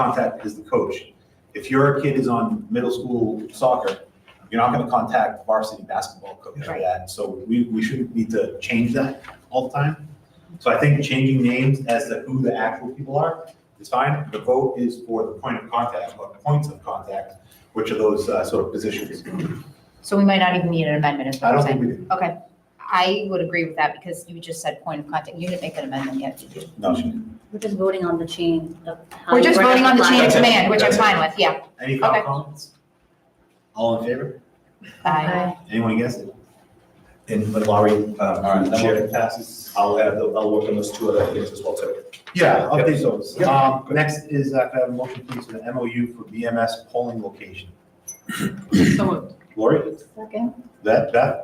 contact is the coach. If your kid is on middle school soccer, you're not gonna contact varsity basketball coach for Right. that. So we, we shouldn't need to change that all the time. So I think changing names as to who the actual people are is fine. The vote is for the point of contact, or points of contact, which are those uh, sort of positions. So we might not even need an amendment, is I what I'm don't think saying. we do. Okay, I would agree with that because you just said point of contact, you didn't make an amendment yet, did you? No, she- We're just voting on the chain of. Um, how We're you just word voting on the chain of it. That's it. command, which I'm That's it. fine with, yeah. any Okay. final comments? All in favor? Bye. Anyone against it? And but Laurie, right, um, that Chair one passes, I'll add, the- I'll work on those two other things as well too. Yeah, update those. Yep. Um, next is, uh, can I have a motion please for the MOU for BMS polling location? Lori? Second. That, Beth?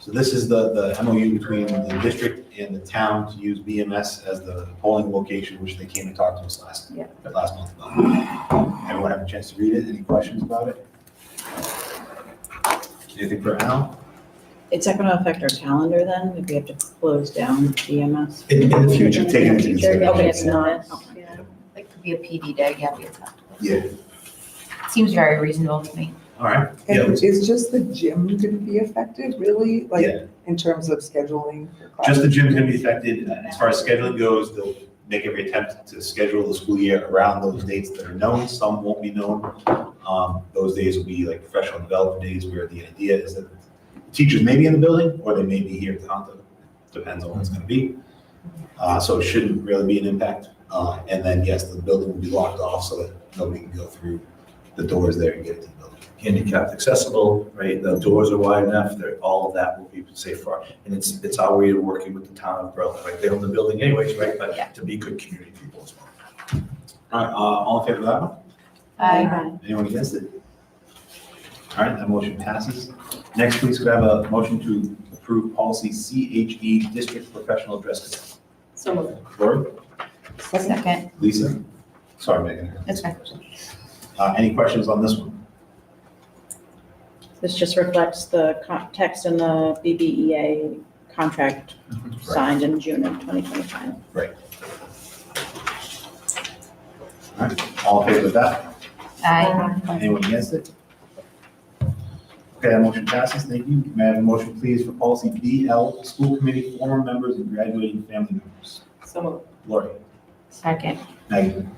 So this is the, the MOU between the district and the town to use BMS as the polling location, which they came and talked to us last, Yeah. last month. about. Everyone have a chance to read it? Any questions about it? Anything for Al? It's not going to affect our calendar then, if we have to close down E DMS? In, in the future, In the taking into future, consideration. Okay, it's not. Yeah. It could be a PD day, yeah, we talked. Yeah, Seems very reasonable to me. all right. Yeah, And is just the gym going to be affected, really, Yeah. like, in terms of scheduling? for Just classes? the gym's gonna be affected, and as far as scheduling goes, they'll make every attempt to schedule the school year around those dates that are known, some won't be known. Um, those days will be like professional development days where the idea is that teachers may be in the building, or they may be here at Tohoto, depends on what it's gonna be. Uh, so it shouldn't really be an impact, uh, and then, yes, the building will be locked off so that nobody can go through the doors there and get into the building. Handicapped accessible, right, the doors are wide enough, they're, all of that will be safe for, and it's, it's our way of working with the town of Berlin, right, they own the building anyways, right, Yeah. but to be good community people as well. All right, uh, all in favor of that one? Bye. Anyone against it? All right, that motion passes. Next, please could I have a motion to approve policy CHE, district professional dress So moved. code? Lori? Second, Lisa? Sorry, Megan. That's fine. Uh, any questions on this one? This just reflects the co- text in the BBEA contract signed in June of 2025. All right, all in favor of that? aye. Anyone against it? Okay, that motion passes. Thank you. May I have a motion, please, for policy BL, school committee, former members and graduating family members? So moved. Lori? Second, Megan?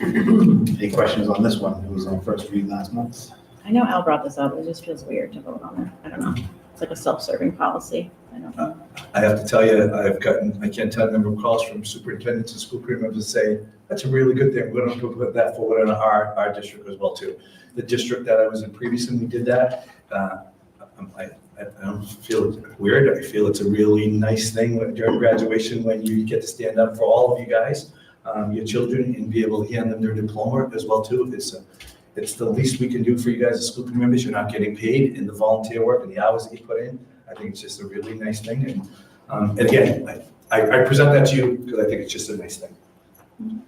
Any questions on this one? It was on first read last month. I know Al brought this up, it just feels weird to vote on it. I don't know. It's like a self-serving policy. I don't know. I have to tell you, I've gotten, I can't tell the number of calls from superintendents and school committee members that say, that's a really good thing, we're gonna put that forward in our, our district as well too. The district that I was in previously, we did that, uh, I'm- I, I I don't feel it's weird, I feel it's a really nice thing when- during graduation, when you get to stand up for all of you guys, um, your children, and be able to hand them their diploma as well too, it's, a- it's the least we can do for you guys as school committee members, you're not getting paid in the volunteer work and the hours that you put in, I think it's just a really nice thing, and um, And again, I- I, I present that to you because I think it's just a nice thing.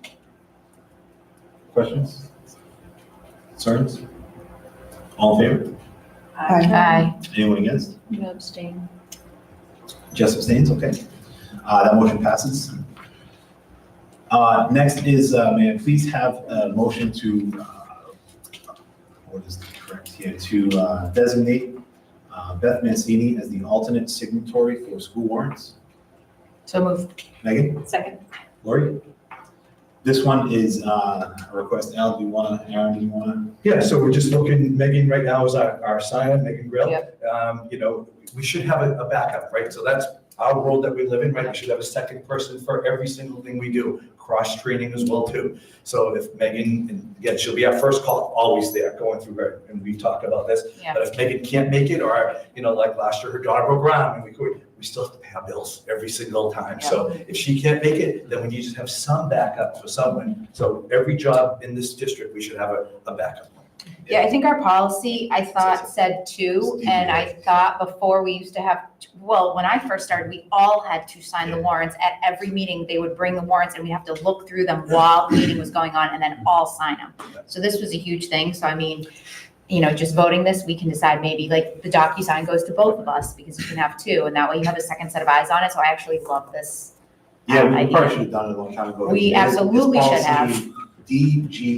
Questions? Concerns? All in favor? Aye. aye. Anyone against? You abstain. Jess abstains, okay. Uh, that motion passes. Uh, next is, uh, may I please have a motion to, uh, what is correct here, to, uh, designate, uh, Beth Mancini as the alternate signatory for school warrants? So moved. Megan? Second. Lori? This one is, uh, a request, Al, do you wanna, Aaron, do you wanna? Yeah, so we're just looking, Megan right now is our, our sign-up, Megan Grill. Yep. Um, you know, we should have a, a backup, right? So that's our world that we live in, right? We should have a second person for every single thing we do, cross-training as well too. So if Megan, and again, she'll be our first call, always there, going through her, and we talked about this. Yeah. But if Megan can't make it, or, you know, like last year, her daughter broke ground, and we could, we still have to pay our bills every single time. So if she can't make it, then we need to have some backup for someone. So every job in this district, we should have a, a backup. Yeah, I think our policy, I thought, said two, and I thought before we used to have, well, when I first started, we all had to sign the warrants. At every meeting, they would bring the warrants and we have to look through them while the meeting was going on and then all sign them. So this was a huge thing, so I mean, you know, just voting this, we can decide maybe like the DocuSign goes to both of us because you can have two, and that way you have a second set of eyes on it, so I actually love this. um, Yeah, we I- probably should have done it a long time ago. We This- this absolutely policy, should have. DG